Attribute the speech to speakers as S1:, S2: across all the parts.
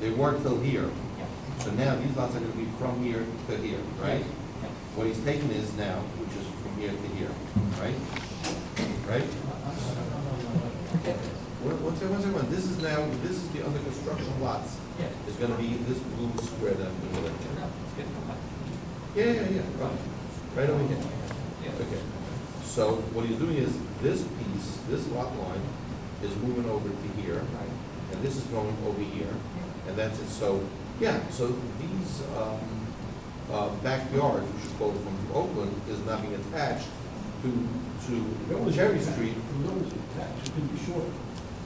S1: They were till here.
S2: Yeah.
S1: So now these lots are gonna be from here to here, right? What he's taking is now, which is from here to here, right? Right? What- What's, what's everyone, this is now, this is the under construction lots.
S2: Yeah.
S1: It's gonna be this blue square down the middle.
S2: No, it's good.
S1: Yeah, yeah, yeah, right, right over here.
S2: Yeah.
S1: Okay, so what he's doing is, this piece, this lot line is moving over to here, and this is going over here, and that's it, so, yeah, so these, um, uh, backyards, which is called from Oakland, is not being attached to, to Cherry Street.
S3: The road is attached, it could be short.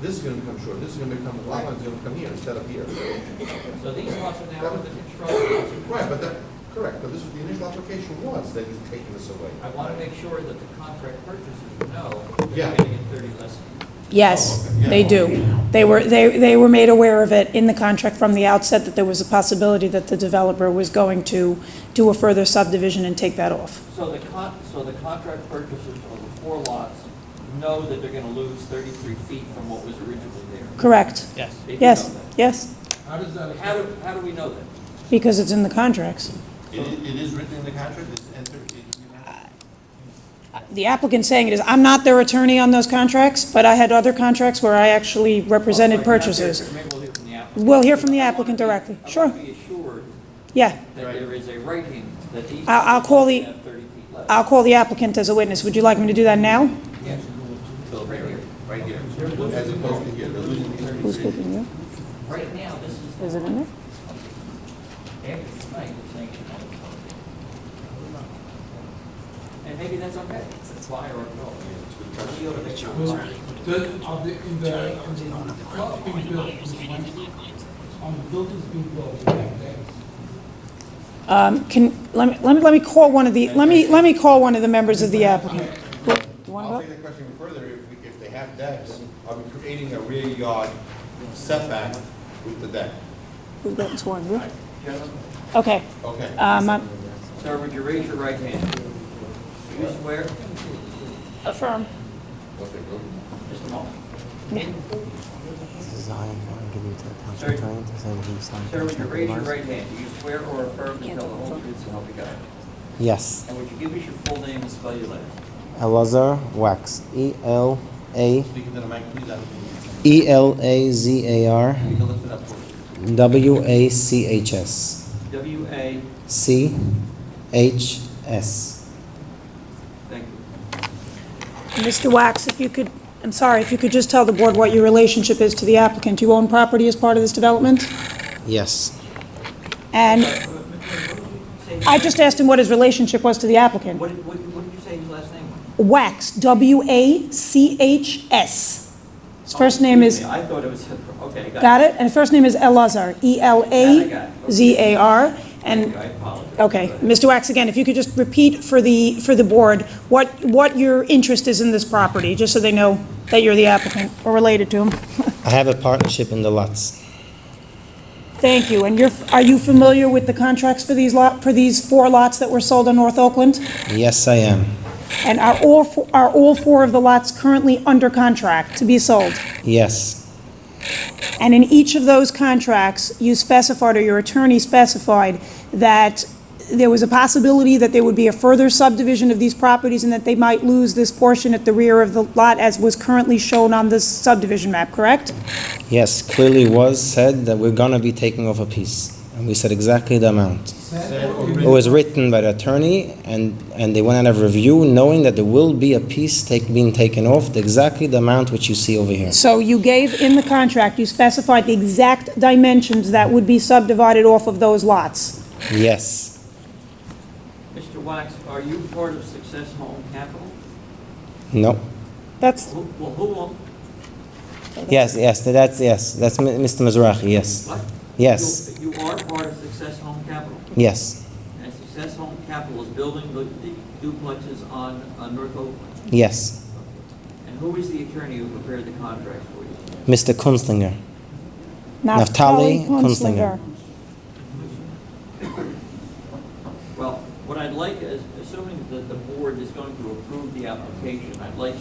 S1: This is gonna become short, this is gonna become, the lot line's gonna come here instead of here.
S2: So these lots are now under construction.
S1: Right, but that, correct, but this, the initial application was that he's taking this away.
S2: I want to make sure that the contract purchasers know
S1: Yeah.
S2: they're getting it thirty less.
S1: Oh,
S4: Yes,
S1: okay.
S4: they
S1: Yeah.
S4: do. They were, they, they were made aware of it in the contract from the outset that there was a possibility that the developer was going to do a further subdivision and take that off.
S2: So the con, so the contract purchasers of the four lots know that they're going to lose thirty-three feet from what was originally there.
S4: Correct?
S5: Yes.
S2: They do
S4: Yes,
S2: know that.
S4: yes,
S3: How does that
S2: How
S3: affect?
S2: do, how do we know that?
S4: because it's in the contracts.
S1: It is, it is written in the contract, it's entered, it- you have-
S4: The applicant saying it is, I'm not their attorney on those contracts, but I had other contracts where I actually
S1: Oh,
S4: represented
S2: Well, maybe
S4: purchasers.
S2: we'll hear from the applicant.
S4: We'll hear from the
S2: I wanna
S4: applicant
S2: be-
S4: directly.
S2: I
S4: Sure.
S2: want to be assured
S4: Yeah,
S2: that
S1: Right.
S2: there is a writing that these.
S4: I'll- I'll call the-
S2: have Thirty feet less.
S4: I'll call the applicant as a witness. Would you like me to do that now?
S2: Yeah. Right here.
S1: right here, as opposed to here, they're losing these thirty
S4: Who's
S1: three.
S4: speaking, you?
S2: Right now, this is.
S4: Is it in there?
S2: After tonight, it's saying it's not a problem. And maybe that's okay. It's why or no. We over there.
S3: The, of the, in the, in the lot being built, on the buildings being built, we have that.
S4: Um, Can, let me, let me, let me call one of the, let me, let me call one of the members of the applicant. Look, do you want to
S1: I'll
S4: vote?
S1: take the question further, if, we- if they have decks, are we creating a rear yard setback with the deck?
S4: We've gotten sworn, you? Okay,
S1: Okay.
S4: um, I'm-
S2: Sir, would you raise your right hand? Do you swear?
S4: affirm.
S1: Okay, go.
S2: Just a moment.
S6: This is Zion. I'm giving it to the township
S2: Sir.
S6: attorney to say that he signed.
S2: Sir, would you
S6: contract
S2: raise your
S6: with
S2: right hand? Do you swear or affirm to tell the whole truth so help you God?
S6: us. Yes.
S2: And would you give us your full name and spell your last?
S6: Elazar Wax. E L A
S1: Speaking to the mic, please, I don't think
S6: E L A Z A R
S1: you can lift it up for us.
S6: W A C H S
S2: W A,
S6: C H S.
S2: thank you.
S4: Mr. Wax, if you could, I'm sorry, if you could just tell the board what your relationship is to the applicant. You own property as part of this development?
S6: Yes.
S4: And
S2: Say-
S4: I just asked him what his relationship was to the applicant.
S2: What, did- what, what did you say his last name was?
S4: Wax, W-A-C-H-S. His first name is,
S2: Excuse me, I thought it was, okay,
S4: got it? And his first name is Elazar, E E-L-A-Z-A-R. And
S2: I apologize.
S4: Okay,
S2: Go ahead.
S4: Mr. Wax, again, if you could just repeat for the, for the board, what, what your interest is in this property, just so they know that you're the applicant or related to them.
S6: I have a partnership in the lots.
S4: Thank you, and you're, are you familiar with the contracts for these lot, for these four lots that were sold in North Oakland?
S6: Yes, I am.
S4: And are all, fo- are all four of the lots currently under contract to be sold?
S6: Yes.
S4: And in each of those contracts, you specified, or your attorney specified, that there was a possibility that there would be a further subdivision of these properties and that they might lose this portion at the rear of the lot as was currently shown on this subdivision map, correct?
S6: Yes. Clearly was said that we're gonna be taking off a piece, and we said exactly the amount. It was written by the attorney, and, and they went out of review, knowing that there will be a piece take, being taken off, the- exactly the amount which you see over here.
S4: So you gave in the contract, you specified the exact dimensions that would be subdivided off of those lots.
S6: Yes,
S2: Mr. Wax, are you part of Success Home Capital?
S6: no,
S4: That's,
S2: Who, well, who, own-
S6: yes, yes, that's, yes, that's Mi- Mr. Mizrahi, yes,
S2: what?
S6: Yes.
S2: You you are part of Success Home Capital,
S6: yes,
S2: and Success Home Capital is building the the duplexes on, on North Oakland.
S6: yes.
S2: And who is the attorney who prepared the contract for you?
S6: Mr. Kunstlinger,
S4: Naftali
S6: Naftali Kunstlinger.
S4: Kunstlinger.
S2: Well, what I'd like is, assuming that the board is going to approve the application, I'd like